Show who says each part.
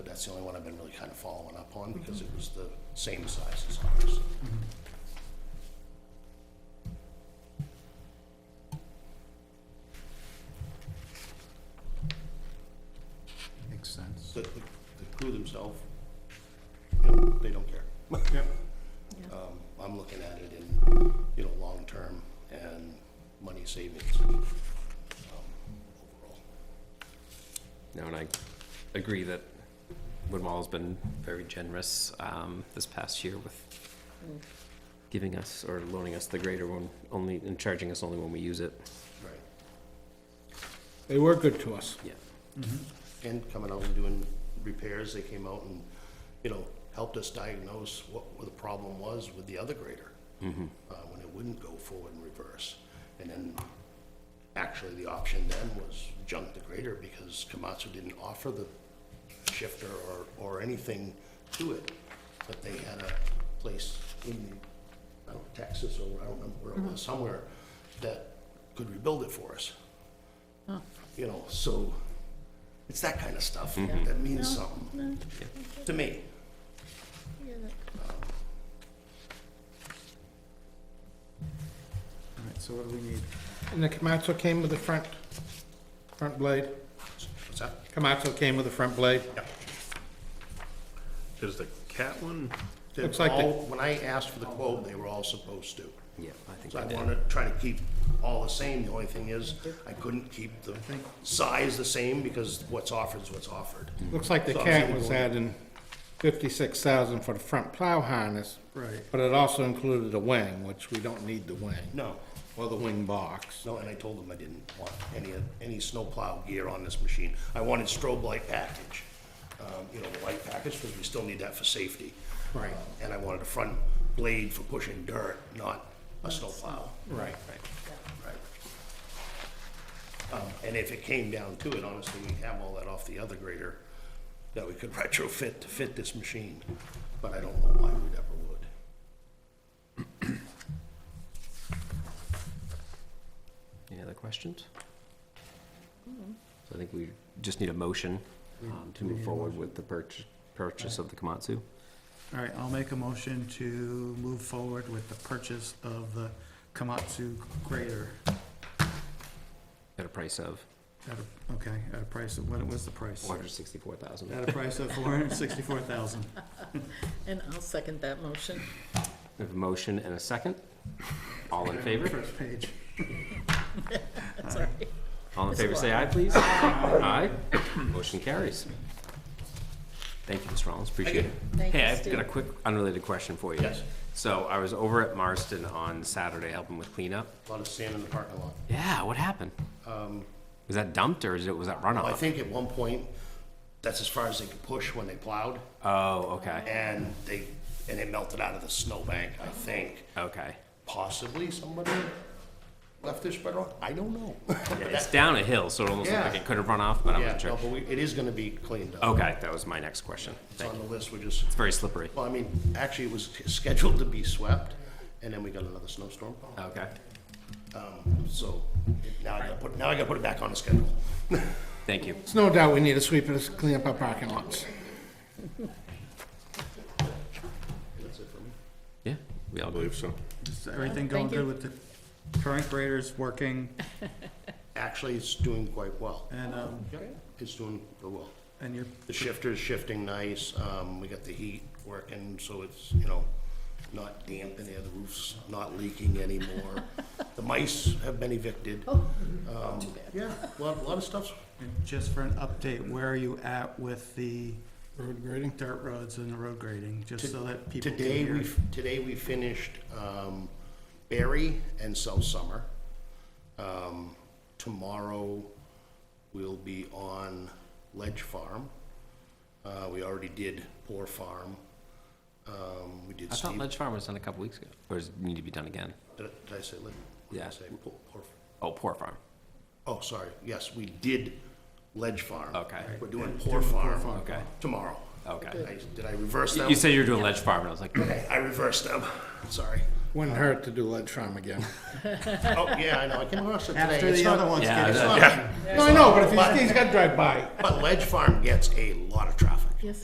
Speaker 1: That's the only one I've been really kind of following up on because it was the same size as ours.
Speaker 2: Mm-hmm. Makes sense.
Speaker 1: The, the the crew themselves, you know, they don't care.
Speaker 2: Yep.
Speaker 1: Um, I'm looking at it in, you know, long-term and money savings um, overall.
Speaker 3: No, and I agree that Woodwall's been very generous um, this past year with giving us or loaning us the greater one only and charging us only when we use it.
Speaker 1: Right.
Speaker 4: They were good to us.
Speaker 3: Yeah.
Speaker 1: And coming out and doing repairs, they came out and, you know, helped us diagnose what the problem was with the other grader. Uh, when it wouldn't go forward and reverse. And then, actually, the option then was junk the grader because Komatsu didn't offer the shifter or, or anything to it. But they had a place in, I don't know, Texas or I don't remember where it was, somewhere that could rebuild it for us. You know, so it's that kind of stuff that means something to me.
Speaker 2: All right, so what do we need?
Speaker 4: And the Komatsu came with a front, front blade.
Speaker 1: What's that?
Speaker 4: Komatsu came with a front blade.
Speaker 5: Is the cat one,
Speaker 1: They're
Speaker 4: Looks like the-
Speaker 1: all- When I asked for the quote, they were all supposed to.
Speaker 3: Yeah, I think
Speaker 1: So I
Speaker 3: I did.
Speaker 1: wanted to try to keep all the same. The only thing is, I couldn't keep the size the same because what's offered is what's offered.
Speaker 4: Looks like the
Speaker 1: So I'm
Speaker 4: cat
Speaker 1: seeing
Speaker 4: was
Speaker 1: one.
Speaker 4: adding fifty-six thousand for the front plow harness.
Speaker 2: Right.
Speaker 4: But it also included a wing, which we don't need the wing,
Speaker 1: No,
Speaker 4: or the wing box.
Speaker 1: no, and I told them I didn't want any, of- any snowplow gear on this machine. I wanted strobe light package, um, you know, the light package, because we still need that for safety.
Speaker 4: Right.
Speaker 1: Um, And I wanted a front blade for pushing dirt, not a snowplow.
Speaker 4: Right.
Speaker 1: Right. Um, And if it came down to it, honestly, we have all that off the other grader that we could retrofit to fit this machine, but I don't know why we never would.
Speaker 3: Any other questions? So I think we just need a motion um, to move forward with the purch- purchase of the Komatsu.
Speaker 2: All right, I'll make a motion to move forward with the purchase of the Komatsu grader.
Speaker 3: At a price of
Speaker 2: At a, okay, at a price of, what was the price?
Speaker 3: four hundred sixty-four thousand.
Speaker 2: At a price of four hundred and sixty-four thousand.
Speaker 6: And I'll second that motion.
Speaker 3: We have a motion and a second. All in favor?
Speaker 2: First page.
Speaker 3: All in favor, say aye, please. Aye. Motion carries. Thank you, Mr. Rollins, appreciate it.
Speaker 6: Thank you,
Speaker 3: Hey, I've got a
Speaker 6: Steve.
Speaker 3: quick unrelated question for you.
Speaker 1: Yes.
Speaker 3: So I was over at Marston on Saturday helping with cleanup.
Speaker 1: A lot of sand in the parking lot.
Speaker 3: Yeah, what happened? Was that dumped or is it, was that
Speaker 1: I
Speaker 3: runoff?
Speaker 1: think at one point, that's as far as they could push when they plowed,
Speaker 3: Oh, okay,
Speaker 1: and they, and it melted out of the snowbank, I think.
Speaker 3: okay.
Speaker 1: Possibly somebody left their spreader on, I don't know.
Speaker 3: Yeah, It's down a hill, so it almost looked like
Speaker 1: Yeah.
Speaker 3: it could have run off, but I'm
Speaker 1: Yeah,
Speaker 3: not
Speaker 1: no,
Speaker 3: sure.
Speaker 1: but we, it is gonna be cleaned up.
Speaker 3: Okay, that was my next question.
Speaker 1: It's
Speaker 3: Oh, Thank
Speaker 1: on
Speaker 3: you.
Speaker 1: the list, we're just
Speaker 3: It's very slippery.
Speaker 1: Well, I mean, actually, it was scheduled to be swept, and then we got another snowstorm.
Speaker 3: Okay,
Speaker 1: Um, So it- now I gotta put, now I gotta put it back on the schedule.
Speaker 3: thank you.
Speaker 4: It's no doubt we need a sweeper to clean up our parking lots.
Speaker 1: That's it for me.
Speaker 3: Yeah, we all
Speaker 5: I believe so.
Speaker 2: Is everything going
Speaker 6: Thank you.
Speaker 2: good with the current graders working
Speaker 1: Actually, it's doing quite well.
Speaker 2: and, um,
Speaker 1: It's doing well.
Speaker 2: and your
Speaker 1: The shifter's shifting nice, um, we got the heat working, so it's, you know, not damp in there, the roof's not leaking anymore. The mice have been evicted. Um, Yeah, a lot, a lot of stuff's
Speaker 2: And Just for an update, where are you at with the
Speaker 4: Road grading?
Speaker 2: dirt roads and the road grading, just so that people can
Speaker 1: Today,
Speaker 2: hear?
Speaker 1: we, today we finished um, Barry and South Summer. Um, Tomorrow, we'll be on Ledge Farm. Uh, We already did Poor Farm. Um, We did
Speaker 3: I thought
Speaker 1: Steve,
Speaker 3: Ledge Farm was done a couple weeks ago, or does it need to be done again?
Speaker 1: did I- did I say Ledge? What did I
Speaker 3: Yeah.
Speaker 1: say? Poor- Poor-
Speaker 3: Oh, Poor Farm.
Speaker 1: Oh, sorry, yes, we did Ledge Farm.
Speaker 3: Okay.
Speaker 1: We're doing Poor Farm.
Speaker 3: Okay.
Speaker 1: Tomorrow.
Speaker 3: Okay.
Speaker 1: I- Did I reverse them?
Speaker 3: You said you were doing Ledge Farm, and I was like,
Speaker 1: Okay, I reversed them, sorry.
Speaker 4: Wouldn't hurt to do lead trim again.
Speaker 1: Oh, yeah, I know, I came across it today.
Speaker 2: After
Speaker 1: It's
Speaker 2: the
Speaker 1: not-
Speaker 2: other ones
Speaker 3: Yeah,
Speaker 2: get
Speaker 3: I
Speaker 2: done.
Speaker 3: know.
Speaker 1: Yeah.
Speaker 4: No, I know, but if he's, he's gotta drive by.
Speaker 1: But Ledge Farm gets a lot of traffic.